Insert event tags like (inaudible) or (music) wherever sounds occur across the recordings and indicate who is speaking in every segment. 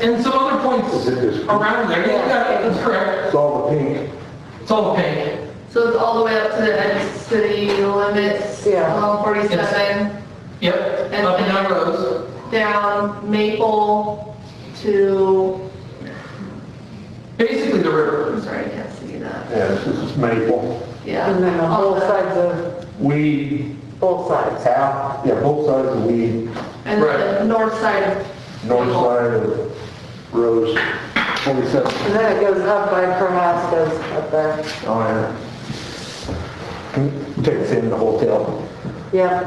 Speaker 1: and some other points around there. Yeah, that's correct.
Speaker 2: It's all the pink.
Speaker 1: It's all pink.
Speaker 3: So it's all the way up to the end of the city limits, um,
Speaker 4: Yeah.
Speaker 3: along 47,
Speaker 1: Yep, up and down rows.
Speaker 3: down Maple to,
Speaker 1: Basically the river.
Speaker 3: I'm sorry, I can't see that.
Speaker 2: Yeah, this is Maple.
Speaker 3: Yeah.
Speaker 4: And then on
Speaker 3: all
Speaker 4: both
Speaker 3: the-
Speaker 4: sides of,
Speaker 2: Weed,
Speaker 4: both sides.
Speaker 2: half, yeah, both sides of weed,
Speaker 3: And then the north side of.
Speaker 2: north
Speaker 3: Maple.
Speaker 2: side of Rose, 47.
Speaker 4: And then it goes up by Prohaska's up there.
Speaker 2: Oh, yeah. Takes in the hotel.
Speaker 4: Yeah,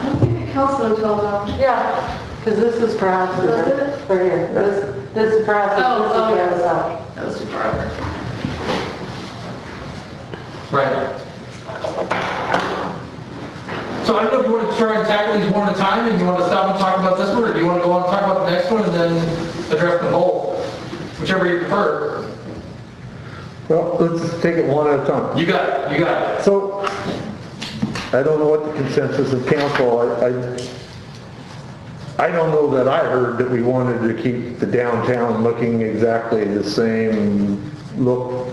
Speaker 3: I don't think it counts the hotel though.
Speaker 4: yeah, because this is Prohaska's, right here. This, this is
Speaker 3: Oh,
Speaker 4: Prohaska's,
Speaker 3: oh,
Speaker 4: this
Speaker 3: yeah.
Speaker 4: is Garazak.
Speaker 3: That was too far over.
Speaker 1: Right. So I don't know if you want to try and tackle these one at a time, and you want to stop and talk about this one, or do you want to go on and talk about the next one and then address the whole? Whichever you prefer.
Speaker 5: Well, let's take it one at a time.
Speaker 1: You got it, you got it.
Speaker 5: So, I don't know what the consensus of council, I, I, I don't know that I heard that we wanted to keep the downtown looking exactly the same look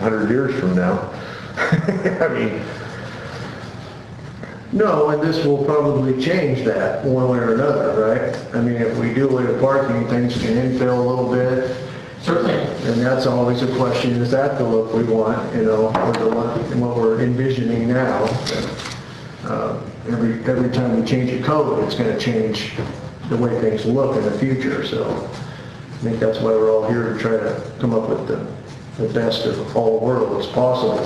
Speaker 5: 100 years from now. (laughs) I mean,
Speaker 6: No, and this will probably change that one way or another, right? I mean, if we do away with parking, things can infill a little bit,
Speaker 1: Certainly.
Speaker 6: and that's always a question, is that the look we want, you know, or the look, what we're envisioning now? Uh, Every, every time we change a code, it's gonna change the way things look in the future, so I think that's why we're all here to try to come up with the, the best of all worlds possible.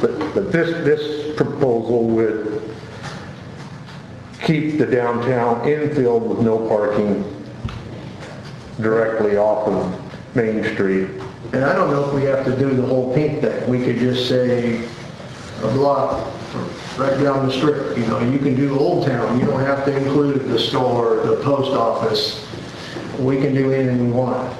Speaker 5: But, but this, this proposal would keep the downtown infield with no parking directly off of Main Street.
Speaker 6: And I don't know if we have to do the whole pink thing. We could just say a block right down the strip, you know, you can do Old Town. You don't have to include the store, the post office. We can do anything we want.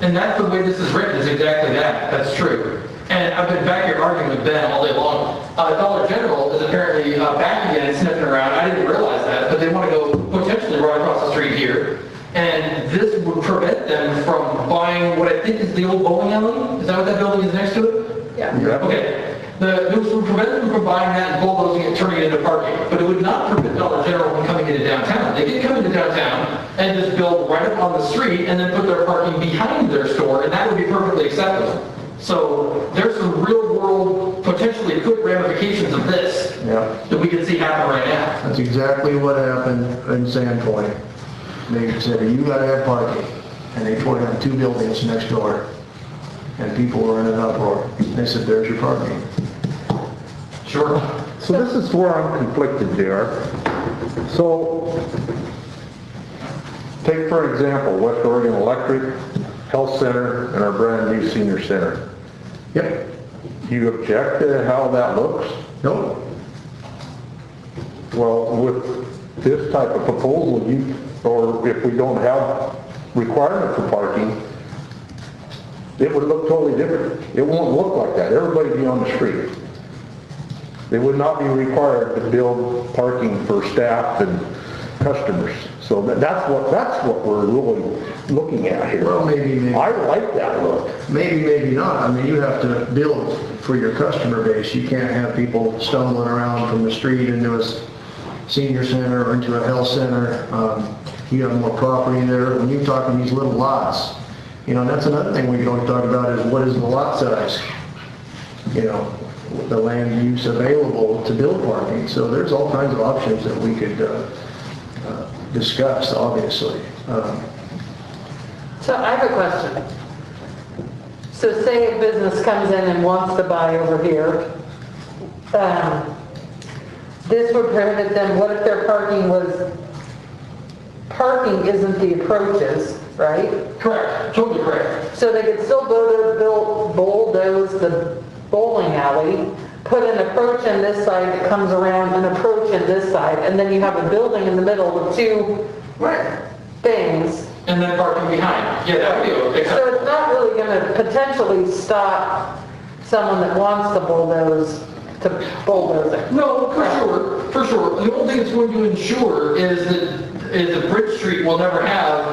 Speaker 1: And that's the way this is written, is exactly that. That's true. And I've been back here arguing with Ben all day long. Uh, Dollar General is apparently uh, back again and sniffing around. I didn't realize that, but they want to go potentially right across the street here. And this would prevent them from buying what I think is the old bowling alley. Is that what that building is next to it?
Speaker 3: Yeah.
Speaker 1: Okay. The, this would prevent them from buying that and bulldozing it and turning it into parking, but it would not prevent Dollar General from coming into downtown. They could come into downtown and just build right up on the street and then put their parking behind their store, and that would be perfectly acceptable. So there's some real-world, potentially good ramifications of this
Speaker 6: Yeah.
Speaker 1: that we can see happen right now.
Speaker 6: That's exactly what happened in Sandpoint. They said, you gotta have parking. And they tore down two buildings next door. And people were in an uproar. They said, there's your parking.
Speaker 1: Sure.
Speaker 5: So this is where I'm conflicted there. So, take for example, West Oregon Electric, Health Center, and our brand-new senior center.
Speaker 6: Yep.
Speaker 5: You object to how that looks?
Speaker 6: Nope.
Speaker 5: Well, with this type of proposal, you, or if we don't have requirement for parking, it would look totally different. It won't look like that. Everybody be on the street. They would not be required to build parking for staff and customers. So that- that's what, that's what we're really looking at here.
Speaker 6: Well, maybe, maybe.
Speaker 5: I like that look.
Speaker 6: Maybe, maybe not. I mean, you have to build for your customer base. You can't have people stumbling around from the street into a s- senior center or into a health center. Um, You have more property there. When you're talking these little lots, you know, and that's another thing we can always talk about is what is the lot size? You know, the land use available to build parking. So there's all kinds of options that we could uh, uh, discuss, obviously. Um,
Speaker 4: So I have a question. So say a business comes in and wants to buy over here, um, this would prohibit them, what if their parking was, parking isn't the approaches, right?
Speaker 1: Correct, totally correct.
Speaker 4: So they could still bulldoze, build- bulldoze the bowling alley, put an approach in this side that comes around, an approach in this side, and then you have a building in the middle with two things.
Speaker 1: And then parking behind. Yeah, that would be
Speaker 4: So
Speaker 1: acceptable.
Speaker 4: it's not really gonna potentially stop someone that wants to bulldoze, to bulldoze it.
Speaker 1: No, for sure, for sure. The only thing it's going to ensure is that is that Bridge Street will never have